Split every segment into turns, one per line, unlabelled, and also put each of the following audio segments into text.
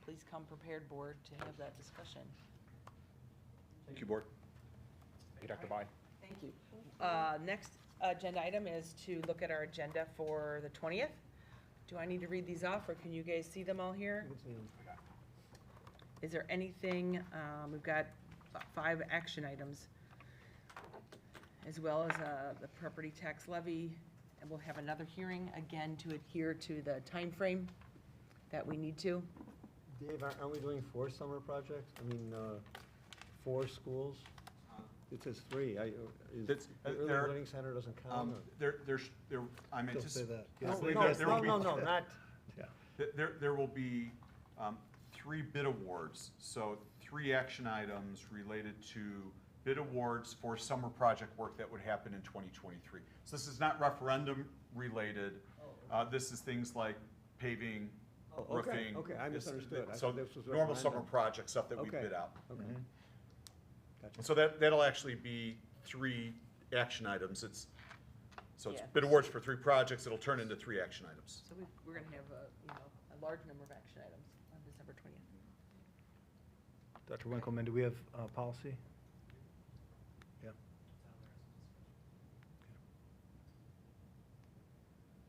please come prepared, board, to have that discussion.
Thank you, Board. Thank you, Dr. Bai.
Thank you. Uh, Next agenda item is to look at our agenda for the 20th. Do I need to read these off, or can you guys see them all here? Is there anything, um, we've got five action items, as well as uh, the property tax levy, and we'll have another hearing, again, to adhere to the time frame that we need to.
Dave, aren't aren't we doing four summer projects? I mean, uh, four schools? It says three. I, is,
That's-
the
uh,
early
there-
learning center doesn't count?
Um,
or-
There, there's, there, I'm
Don't say
anticipating.
that.
No,
Yes, they-
no,
there- there will
no,
be-
no, no, not,
There, there will be um, three bid awards, so three action items related to bid awards for summer project work that would happen in 2023. So this is not referendum related.
Oh,
Uh, This is things like paving,
Oh, okay,
roofing.
okay, I
This-
misunderstood. I
So
thought this was
normal summer
referendum.
project stuff that we
Okay.
bid out.
okay.
Mm-hmm.
Gotcha.
So that, that'll actually be three action items. It's, so it's
Yeah.
bid awards for three projects. It'll turn into three action items.
So we- we're going to have, a, you know, a large number of action items on December 20th.
Dr. Winkelman, do we have uh policy? Yeah.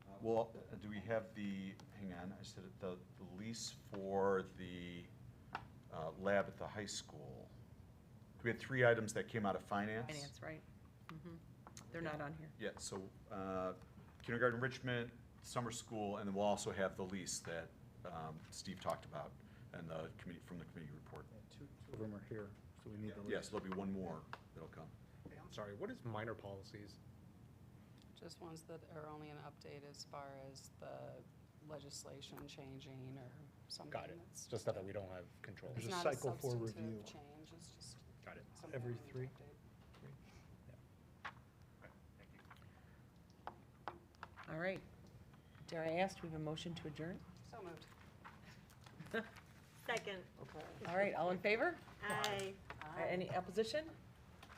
Uh, Well, uh, do we have the, hang on, I said it, the the lease for the uh, lab at the high school. We had three items that came out of finance.
Finance, right? Mhm. They're not on here.
Yeah, so uh, kindergarten enrichment, summer school, and then we'll also have the lease that um, Steve talked about and the committee, from the committee report.
Yeah, Two two of them are here, so we need the list.
Yes, there'll be one more that'll come.
Hey, I'm sorry, what is minor policies?
Just ones that are only an update as far as the legislation changing or something
Got it.
that's.
Just stuff that we don't have control.
There's
It's
a
not
cycle for
substantive
review.
Change, it's just.
Got it.
something
Every
we need to
three?
update.
All right. Dare I ask, we have a motion to adjourn?
So moved.
Second.
All right, all in favor?
Aye.
Any opposition?